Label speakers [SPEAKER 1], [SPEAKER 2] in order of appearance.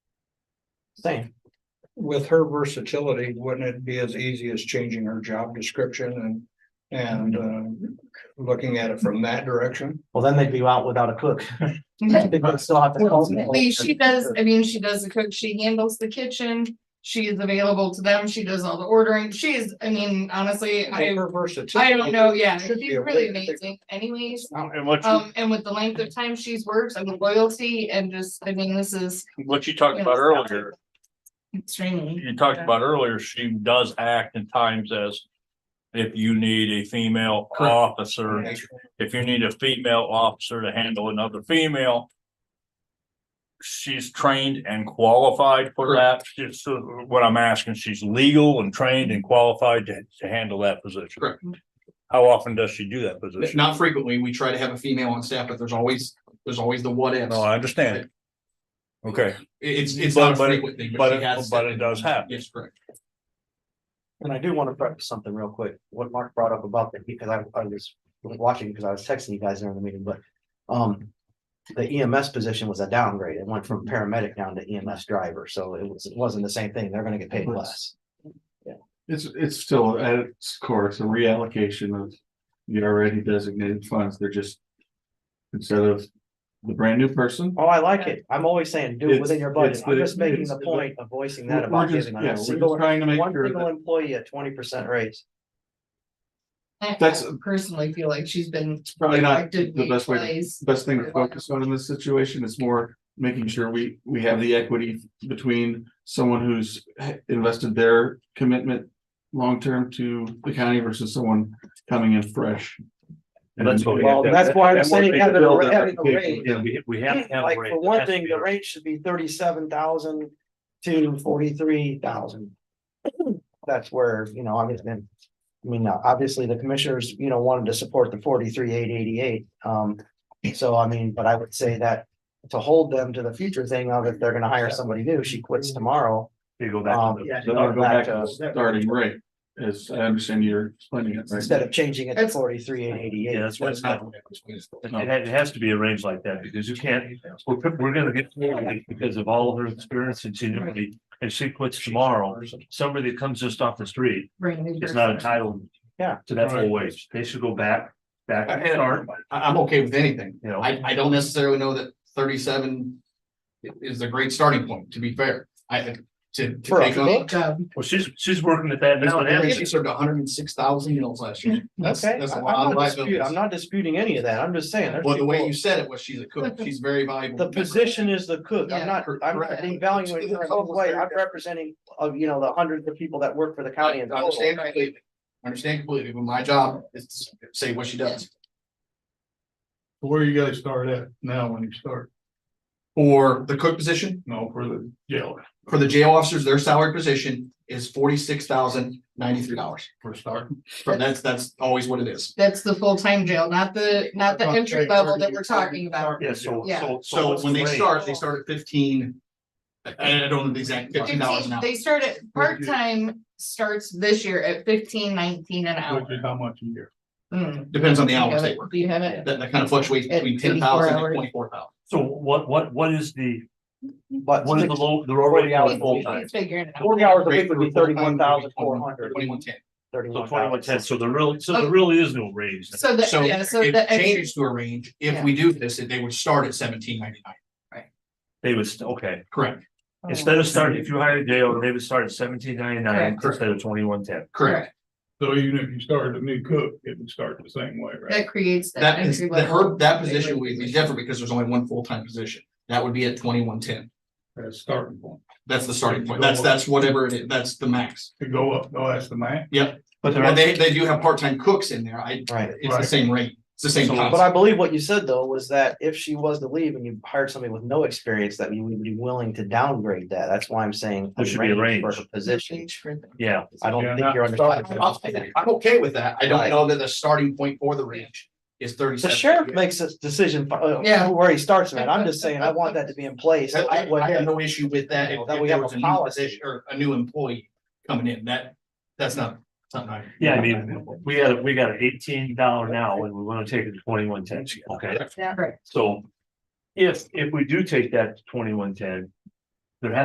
[SPEAKER 1] same.
[SPEAKER 2] with her versatility, wouldn't it be as easy as changing her job description and, and, uh, looking at it from that direction?
[SPEAKER 1] Well, then they'd be out without a cook. They would still have to call people.
[SPEAKER 3] Ultimately, she does, I mean, she does the cook, she handles the kitchen, she is available to them, she does all the ordering, she is, I mean, honestly, I.
[SPEAKER 2] Her versatility.
[SPEAKER 3] I don't know, yeah,
[SPEAKER 2] should be
[SPEAKER 3] she's
[SPEAKER 2] a
[SPEAKER 3] really
[SPEAKER 2] way to-
[SPEAKER 3] amazing anyways,
[SPEAKER 4] Um, And what you,
[SPEAKER 3] um, and with the length of time she's worked and the loyalty and just, I mean, this is
[SPEAKER 4] what you talked about earlier,
[SPEAKER 3] extremely.
[SPEAKER 4] you talked about earlier, she does act in times as. If you need a female
[SPEAKER 1] Correct.
[SPEAKER 4] officer, if you need a female officer to handle another female. She's trained and qualified for that. She's, uh, what I'm asking, she's legal and trained and qualified to, to handle that position.
[SPEAKER 5] Correct.
[SPEAKER 4] How often does she do that position?
[SPEAKER 5] Not frequently. We try to have a female on staff, but there's always, there's always the what ifs.
[SPEAKER 4] No, I understand. Okay,
[SPEAKER 5] It- It's, it's
[SPEAKER 4] But-
[SPEAKER 5] not a
[SPEAKER 4] but it-
[SPEAKER 5] frequent thing,
[SPEAKER 4] but
[SPEAKER 5] but
[SPEAKER 4] it-
[SPEAKER 5] she has.
[SPEAKER 4] but it
[SPEAKER 5] stepped in.
[SPEAKER 4] does happen.
[SPEAKER 5] Yes, correct.
[SPEAKER 1] And I do want to preface something real quick, what Mark brought up about that, because I, I was watching, because I was texting you guys during the meeting, but, um. The EMS position was a downgrade, it went from paramedic down to EMS driver, so it was, it wasn't the same thing, they're gonna get paid less.
[SPEAKER 6] It's, it's still at its course, a reallocation of the already designated funds, they're just. Instead of the brand new person,
[SPEAKER 1] Oh, I like it, I'm always saying, do it within your budget,
[SPEAKER 6] It's- it's
[SPEAKER 1] I'm
[SPEAKER 6] the-
[SPEAKER 1] just making the
[SPEAKER 6] it's the-
[SPEAKER 1] point of voicing that
[SPEAKER 6] we're
[SPEAKER 1] about
[SPEAKER 6] we're just,
[SPEAKER 1] giving
[SPEAKER 6] yeah,
[SPEAKER 1] on
[SPEAKER 6] we're
[SPEAKER 1] a
[SPEAKER 6] just
[SPEAKER 1] single.
[SPEAKER 6] trying to make
[SPEAKER 1] One
[SPEAKER 6] sure
[SPEAKER 1] single
[SPEAKER 6] that.
[SPEAKER 1] employee a twenty percent raise,
[SPEAKER 3] I
[SPEAKER 6] That's-
[SPEAKER 3] I personally feel like she's been.
[SPEAKER 6] It's probably not
[SPEAKER 3] elected
[SPEAKER 6] the best way to
[SPEAKER 3] ways.
[SPEAKER 6] best thing to focus on in this situation is more making sure we, we have the equity between someone who's invested their commitment long-term to the county versus someone coming in fresh. And
[SPEAKER 4] That's what we
[SPEAKER 1] well,
[SPEAKER 4] have to-
[SPEAKER 1] that's why I'm
[SPEAKER 4] that would
[SPEAKER 1] saying
[SPEAKER 4] be
[SPEAKER 1] having
[SPEAKER 4] the
[SPEAKER 1] a
[SPEAKER 4] build
[SPEAKER 1] ra-
[SPEAKER 4] up.
[SPEAKER 1] having a raise.
[SPEAKER 4] Yeah, we, we have to have. a
[SPEAKER 1] Like,
[SPEAKER 4] raise.
[SPEAKER 1] for
[SPEAKER 4] It
[SPEAKER 1] one
[SPEAKER 4] has to
[SPEAKER 1] thing,
[SPEAKER 4] be
[SPEAKER 1] the
[SPEAKER 4] a-
[SPEAKER 1] rate should be thirty-seven thousand to forty-three thousand. That's where, you know, I mean, then, I mean, now, obviously, the commissioners, you know, wanted to support the forty-three, eight eighty-eight, um. So, I mean, but I would say that to hold them to the future thing of if they're gonna hire somebody new, she
[SPEAKER 6] Mm-hmm.
[SPEAKER 1] quits tomorrow.
[SPEAKER 4] You go back to
[SPEAKER 1] Um,
[SPEAKER 4] the-
[SPEAKER 6] Then I'll go back to the starting rate, as I understand you're explaining it. right?
[SPEAKER 1] Instead of changing it to
[SPEAKER 3] That's-
[SPEAKER 1] forty-three, eight eighty-eight.
[SPEAKER 4] Yeah, that's what it's
[SPEAKER 5] That's
[SPEAKER 4] not.
[SPEAKER 5] not the way it was placed.
[SPEAKER 4] It, it ha- it has to be arranged like that because you can't, we're, pick- we're gonna get somebody because of all of her experience and seniority. And she quits tomorrow, somebody that comes just off the street
[SPEAKER 3] Bring new
[SPEAKER 4] is not
[SPEAKER 3] person.
[SPEAKER 4] entitled.
[SPEAKER 1] Yeah.
[SPEAKER 4] To that full wage. They should go back, back and start,
[SPEAKER 5] I, am okay with anything.
[SPEAKER 4] you know.
[SPEAKER 5] I, I don't necessarily know that thirty-seven i- is a great starting point, to be fair. I, to, to
[SPEAKER 1] For a
[SPEAKER 5] take on.
[SPEAKER 1] book?
[SPEAKER 3] Job.
[SPEAKER 4] Well, she's, she's working at that now. and hasn't
[SPEAKER 5] She
[SPEAKER 4] she?
[SPEAKER 5] served hundred and six thousand meals last year. That's,
[SPEAKER 1] Okay,
[SPEAKER 5] that's a
[SPEAKER 1] I'm
[SPEAKER 5] lot of
[SPEAKER 1] not disputing, I'm
[SPEAKER 5] liabilities.
[SPEAKER 1] not disputing any of that, I'm just saying. there's
[SPEAKER 5] Well, the way
[SPEAKER 1] people-
[SPEAKER 5] you said it was she's a cook. She's a very valuable.
[SPEAKER 1] The
[SPEAKER 5] member.
[SPEAKER 1] position is the cook.
[SPEAKER 3] Yeah,
[SPEAKER 1] I'm not,
[SPEAKER 5] cor-
[SPEAKER 1] I'm not
[SPEAKER 5] correct.
[SPEAKER 1] devaluing her in any way. I'm representing, uh, you know, the hundreds of people that work for the
[SPEAKER 5] I
[SPEAKER 1] county. and
[SPEAKER 5] understand completely. I Understand completely, but my job is to say what she does.
[SPEAKER 2] Where you gotta start at now when you start?
[SPEAKER 5] For the cook position,
[SPEAKER 2] No, for the jailer,
[SPEAKER 5] for the jail officers, their salary position is forty-six thousand ninety-three dollars.
[SPEAKER 2] for starting.
[SPEAKER 5] From that's, that's always what it is.
[SPEAKER 3] That's the full-time jail, not the, not the entry level that we're talking about.
[SPEAKER 4] Yeah, so,
[SPEAKER 3] Yeah.
[SPEAKER 4] so.
[SPEAKER 5] So
[SPEAKER 4] what's
[SPEAKER 5] when
[SPEAKER 4] the
[SPEAKER 5] they
[SPEAKER 4] rate?
[SPEAKER 5] start, they start at fifteen. I- I don't know the exact fifteen dollars an
[SPEAKER 3] Fifteen,
[SPEAKER 5] hour.
[SPEAKER 3] they start at, part-time starts this year at fifteen nineteen an hour.
[SPEAKER 2] Which is how much a year?
[SPEAKER 3] Mm.
[SPEAKER 5] Depends on the
[SPEAKER 3] Do you
[SPEAKER 5] hours
[SPEAKER 3] have
[SPEAKER 5] they
[SPEAKER 3] it?
[SPEAKER 5] work.
[SPEAKER 3] Do you have it?
[SPEAKER 5] That, that kind of fluctuates
[SPEAKER 3] At
[SPEAKER 5] between
[SPEAKER 3] 24
[SPEAKER 5] ten thousand
[SPEAKER 3] hours.
[SPEAKER 5] and twenty-four thousand.
[SPEAKER 4] So what, what, what is the,
[SPEAKER 1] But
[SPEAKER 4] what is the low, the already
[SPEAKER 1] hours
[SPEAKER 4] hours
[SPEAKER 1] a
[SPEAKER 4] full
[SPEAKER 1] week.
[SPEAKER 4] time?
[SPEAKER 3] He's figuring it out.
[SPEAKER 1] forty hours a week would be thirty-one thousand four hundred.
[SPEAKER 5] Twenty-one ten.
[SPEAKER 4] So
[SPEAKER 1] Thirty-one
[SPEAKER 4] twenty-one ten,
[SPEAKER 1] thousand.
[SPEAKER 4] so there really, so there really is no raise.
[SPEAKER 3] So the,
[SPEAKER 5] So
[SPEAKER 3] yeah, so
[SPEAKER 5] it
[SPEAKER 3] the. entry-
[SPEAKER 5] changes to a range. If we do this, they would start at seventeen ninety-nine.
[SPEAKER 4] They would, st- okay.
[SPEAKER 5] Correct,
[SPEAKER 1] Oh.
[SPEAKER 4] Instead of starting, if you hired Dale, they would start at seventeen ninety-nine instead of twenty-one ten.
[SPEAKER 5] correct.
[SPEAKER 2] So even if you started a new cook, it would start the same way, right?
[SPEAKER 3] That creates. that
[SPEAKER 5] That is,
[SPEAKER 3] entry
[SPEAKER 5] the
[SPEAKER 3] level.
[SPEAKER 5] her, that position would be different because there's only one full-time position. That would be at twenty-one ten.
[SPEAKER 2] That's starting point.
[SPEAKER 5] That's the starting point. That's, that's whatever it is. That's the max.
[SPEAKER 2] To go up, no, that's the max.
[SPEAKER 4] But
[SPEAKER 5] Well, they, they do have part-time cooks in there. I,
[SPEAKER 1] Right.
[SPEAKER 5] it's the same rate. It's the same
[SPEAKER 4] So-
[SPEAKER 1] But
[SPEAKER 5] concept.
[SPEAKER 1] I believe what you said though was that if she was to leave and you hired somebody with no experience, that you would be willing to downgrade that. That's why I'm saying.
[SPEAKER 4] There should be a
[SPEAKER 1] For
[SPEAKER 4] range.
[SPEAKER 1] her position.
[SPEAKER 3] Change for the-
[SPEAKER 4] yeah,
[SPEAKER 1] I don't
[SPEAKER 2] Yeah,
[SPEAKER 1] think
[SPEAKER 2] not
[SPEAKER 1] you're
[SPEAKER 2] starting
[SPEAKER 5] I'm,
[SPEAKER 1] understanding.
[SPEAKER 5] I'm okay with that. I don't know that the starting point for the range is
[SPEAKER 1] The
[SPEAKER 5] thirty-seven.
[SPEAKER 1] sheriff makes a decision uh,
[SPEAKER 3] Yeah.
[SPEAKER 1] where he starts, man. I'm just saying, I want that to be in place.
[SPEAKER 5] I,
[SPEAKER 1] That way-
[SPEAKER 5] I have no issue with that. If
[SPEAKER 1] That
[SPEAKER 5] if
[SPEAKER 1] we
[SPEAKER 5] there
[SPEAKER 1] have
[SPEAKER 5] was
[SPEAKER 1] a
[SPEAKER 5] a new
[SPEAKER 1] policy.
[SPEAKER 5] position or a new employee coming in, that, that's not something I.
[SPEAKER 4] yeah, I mean, we got, a- we got an eighteen dollar now and we wanna take it to twenty-one ten, okay?
[SPEAKER 3] Yeah. Right.
[SPEAKER 4] So if, if we do take that to twenty-one ten,